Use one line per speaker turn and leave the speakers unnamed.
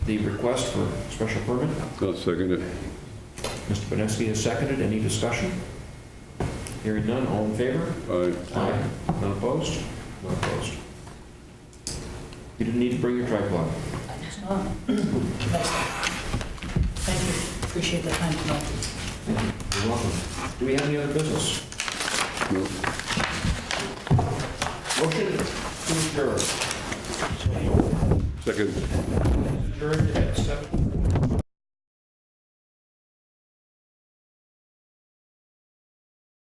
the request for special permit.
I'll second it.
Mr. Benesky has seconded. Any discussion? Hearing none, all in favor?
Aye.
Aye. None opposed? None opposed. You didn't need to bring your tripod.
Oh, nice. Thank you, appreciate the time tonight.
You're welcome. Do we have any other business?
No.
Motion to adjourn.
Second.
Adjourned at 7:00.